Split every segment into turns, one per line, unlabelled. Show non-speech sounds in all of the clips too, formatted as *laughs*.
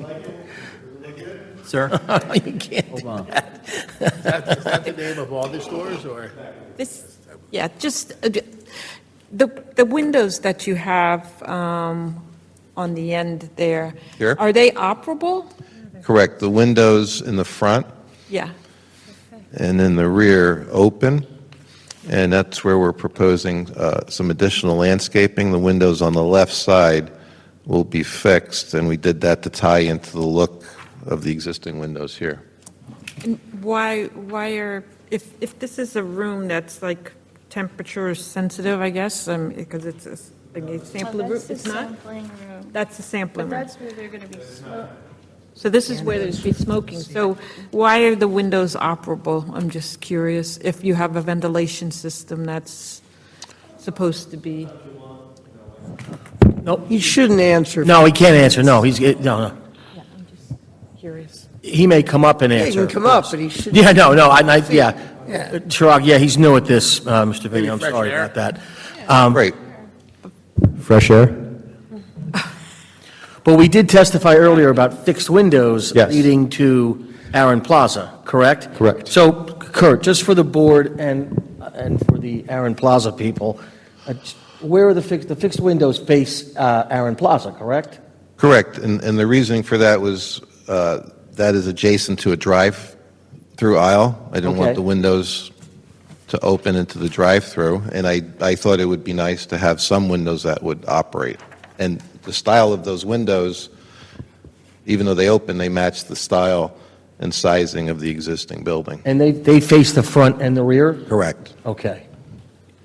*laughs* Sir?
You can't do that.
Is that the name of all the stores, or?
This, yeah, just, uh, ju- the, the windows that you have um, on the end there.
Here?
Are they operable?
Correct. The windows in the front
Yeah,
and in the rear open, and that's where we're proposing uh, some additional landscaping. The windows on the left side will be fixed, and we did that to tie into the look of the existing windows here.
why, why are, if, if this is a room that's like temperature sensitive, I guess, um, because it's a, s- like a
Oh,
sampling room, it's not? That's a sampling
But
room.
that's where they're going to be, smoke-
So this is where there's be smoking, so why are the windows operable? I'm just curious, if you have a ventilation system that's supposed to be.
Nope. He shouldn't answer.
No, he can't answer, no, he's, no, no.
Yeah, I'm just curious.
He may come up and
Yeah,
answer.
He can come up, but he should.
Yeah, no, no, I, I- yeah.
Yeah.
Chirag, yeah, he's new at this, uh, Mr. Vinnie, I'm
fresh
sorry
air.
about that.
Great.
Fresh air?
But we did testify earlier about fixed windows
Yes.
leading to Aaron Plaza, correct?
Correct.
So Kurt, just for the board and, and for the Aaron Plaza people, uh, where are the fixed, the fixed windows face uh, Aaron Plaza, correct?
Correct, and, and the reasoning for that was, uh, that is adjacent to a drive-through aisle. I didn't
Okay.
want the windows to open into the drive-through, and I, I thought it would be nice to have some windows that would operate. And the style of those windows, even though they open, they match the style and sizing of the existing building.
And they, they face the front and the rear?
Correct,
Okay.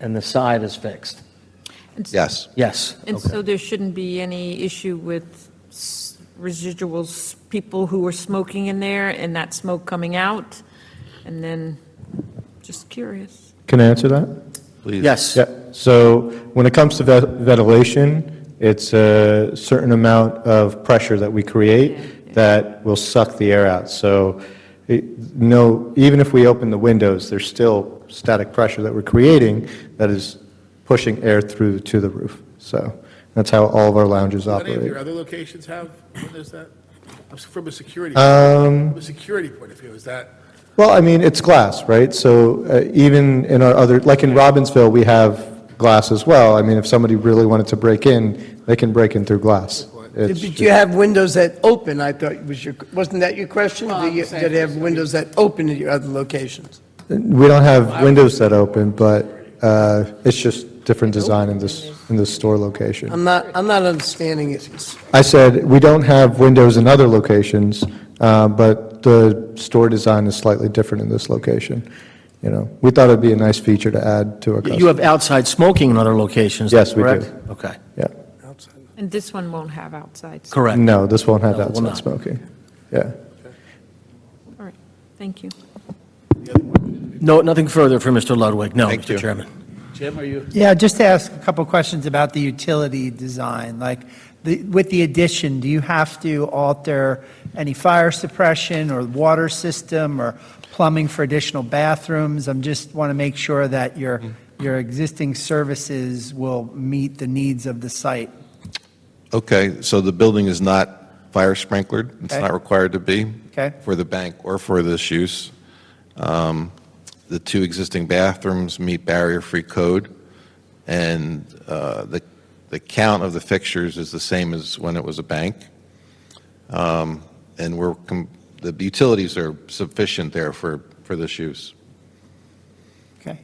And the side is fixed?
yes.
Yes.
And so there shouldn't be any issue with s- residuals, people who are smoking in there and that smoke coming out? And then, just curious.
Can I answer that?
Please.
Yes.
Yeah, so when it comes to ve- ventilation, it's a certain amount of pressure that we create that will suck the air out. So, it- no, even if we open the windows, there's still static pressure that we're creating that is pushing air through to the roof. So that's how all of our lounges
Do Any of
operate.
your other locations have, what is that? From a security,
Um,
from a security point of view, is that?
Well, I mean, it's glass, right? So uh, even in our other, like in Robbinsville, we have glass as well. I mean, if somebody really wanted to break in, they can break in through glass. It's
But you have windows that open, I thought was your, wasn't that your question? Do you- That have windows that open at your other locations?
We don't have windows that open, but uh, it's just different design in this, in this store location.
I'm not, I'm not understanding it.
I said, we don't have windows in other locations, uh, but the store design is slightly different in this location. You know, we thought it'd be a nice feature to add to our
You
customers.
have outside smoking in other locations,
Yes, we do.
correct? Okay,
Yeah.
And this one won't have outside. so-
correct.
No, this won't have
No, it will
outside
not.
smoking. Yeah.
All right, thank you.
No, nothing further for Mr. Ludwig, no,
Thank
Mr.
you.
Chairman.
Jim, are you?
Yeah, just to ask a couple questions about the utility design, like, the- with the addition, do you have to alter any fire suppression or water system or plumbing for additional bathrooms? I'm just want to make sure that your, your existing services will meet the needs of the site.
Okay, so the building is not fire sprinklered, it's
Okay.
not required to be.
Okay.
For the bank or for this use. Um, The two existing bathrooms meet barrier-free code, and uh, the, the count of the fixtures is the same as when it was a bank. Um, And we're, com- the utilities are sufficient there for, for this use.
Okay.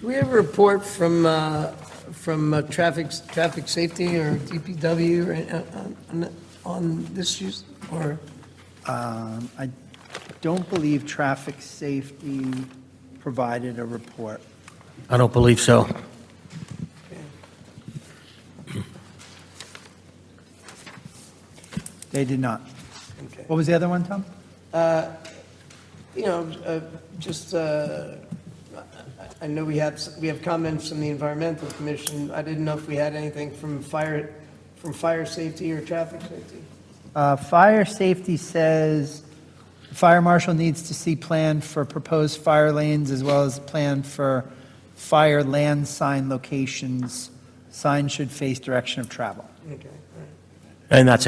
Do we have a report from, uh, from uh, traffic, traffic safety or DPW or, uh, on- on this use? Or,
Um, I don't believe traffic safety provided a report.
I don't believe so.
They did not.
Okay.
What was the other one, Tom?
you know, uh, just, uh, I I know we have, s- we have comments from the environmental commission. I didn't know if we had anything from fire, from fire safety or traffic safety.
Uh, Fire safety says, fire marshal needs to see plan for proposed fire lanes as well as plan for fire land sign locations Signs should face direction of travel.
Okay.
And that's